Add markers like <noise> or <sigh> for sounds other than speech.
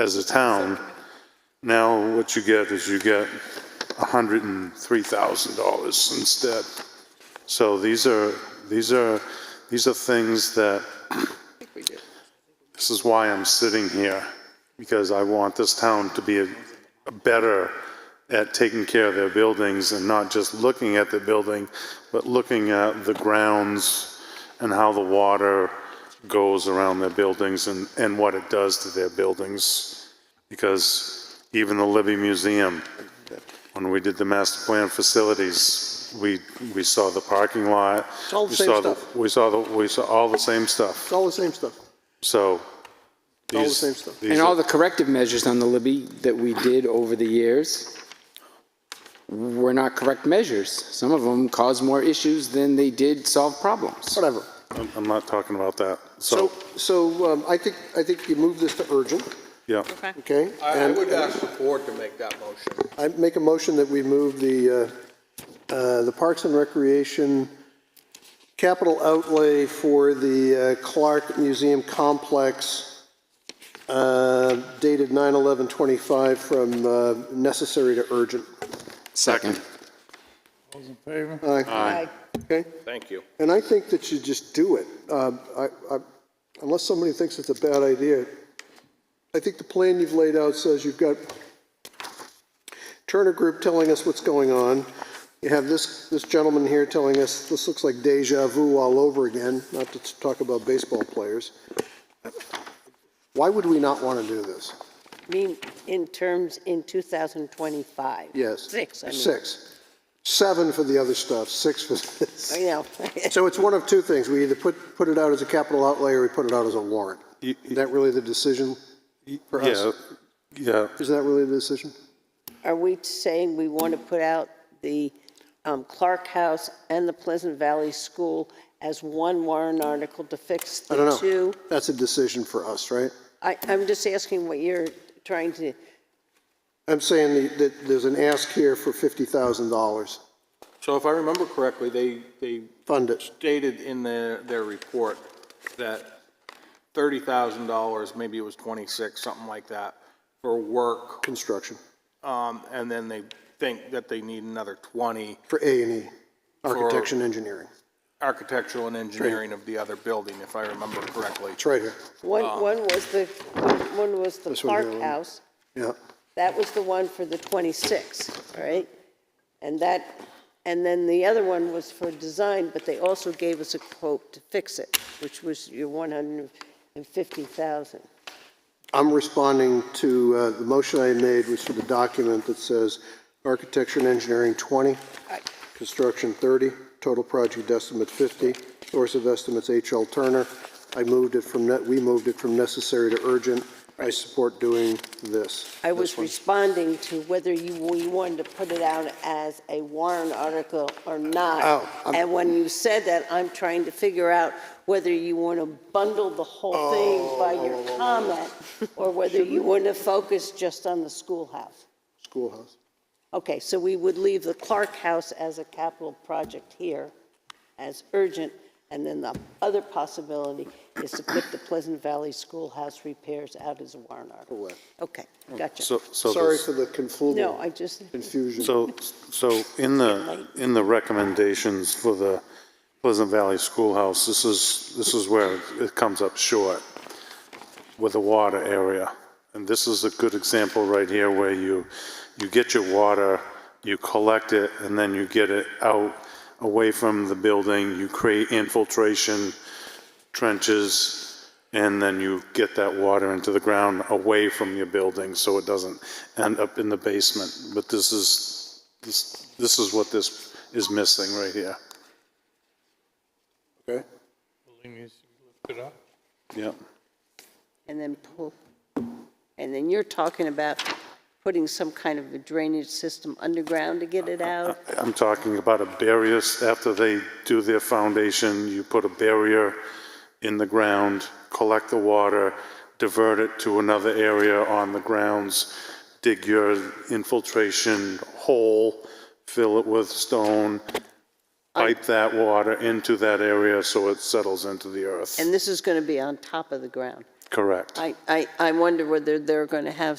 as a town. Now what you get is you get hundred and three thousand dollars instead. So these are, these are, these are things that, this is why I'm sitting here, because I want this town to be a- better at taking care of their buildings and not just looking at the building, but looking at the grounds and how the water goes around their buildings and, and what it does to their buildings. Because even the Libby Museum, when we did the master plan facilities, we, we saw the parking lot. It's all the we same saw stuff. We saw the, we saw all the same stuff, It's all the same stuff. so. all the these- same stuff. these And are- all the corrective measures on the Libby that we did over the years were not correct measures. Some of them caused more issues than they did solve problems. Whatever. I'm I'm not talking about that, So, so, so um, I think, I think you move this to urgent, yeah. okay? I I And- would ask the board to make that motion. I make a motion that we move the, uh, uh, the Parks and Recreation capital outlay for the uh, Clark Museum Complex uh, dated 9/11/25 from uh, necessary to urgent. Second. Aye. Okay? Thank you. And I think that you just do it. Um, I- I- Unless somebody thinks it's a bad idea, I think the plan you've laid out says you've got Turner Group telling us what's going on. You have this, this gentleman here telling us, this looks like deja vu all over again, not to talk about baseball players. Why would we not want to do this? I mean, in terms, in 2025. Yes. Six, I mean. Six. Seven for the other stuff, six for this. I know. So it's one of two things. We either put, put it out as a capital outlay or we put it out as a warrant. You- Is that really the decision? For Yeah, us? yeah, Is that really the decision? <laughs> Are we saying we want to put out the um, Clark House and the Pleasant Valley School as one warrant article to fix I don't the know. two? That's a decision for us, right? I, I'm just asking what you're trying to, I'm saying that- that there's an ask here for $50,000. So if I remember correctly, they, they Fund it. stated in their, their report that $30,000, maybe it was 26, something like that, for work, Construction. um, and then they think that they need another 20 For A and E. Architecture and engineering. architectural and engineering of the other building, if I remember correctly. It's right here. one, one was the, one was the Um. This one here, Clark one. House. Yeah. That was the one for the 26, right? And that, and then the other one was for design, but they also gave us a quote to fix it, which was your 150,000. I'm responding to uh, the motion I made, was for the document that says architecture and engineering 20, construction 30, total project estimate 50, source of estimates H.L. Turner. I moved it from, ne- we moved it from necessary to urgent. I support doing this. I was responding to whether you, we wanted to put it out as a warrant article or not. Oh, I'm- And when you said that, I'm trying to figure out whether you want to bundle the whole thing by Oh. your comment, or whether you want to focus just on the schoolhouse. Schoolhouse. Okay, so we would leave the Clark House as a capital project here as urgent, and then the other possibility is to put the Pleasant Valley Schoolhouse repairs out as a warrant article. Correct. Okay, gotcha. so, so. Sorry this- for the No, confluent I just, confusion. So, so in the, in the recommendations for the Pleasant Valley Schoolhouse, this is, this is where it comes up short with the water area. And this is a good example right here where you, you get your water, you collect it, and then you get it out away from the building, you create infiltration trenches, and then you get that water into the ground away from your building, so it doesn't end up in the basement. But this is, this, this is what this is missing right here. Okay. Yep. and then pull, and then you're talking about putting some kind of a drainage system underground to get it out? I'm talking about a barriers, after they do their foundation, you put a barrier in the ground, collect the water, divert it to another area on the grounds, dig your infiltration hole, fill it with stone, pipe that water into that area so it settles into the earth. And this is going to be on top of the ground? Correct. I, I, I wonder whether they're going to have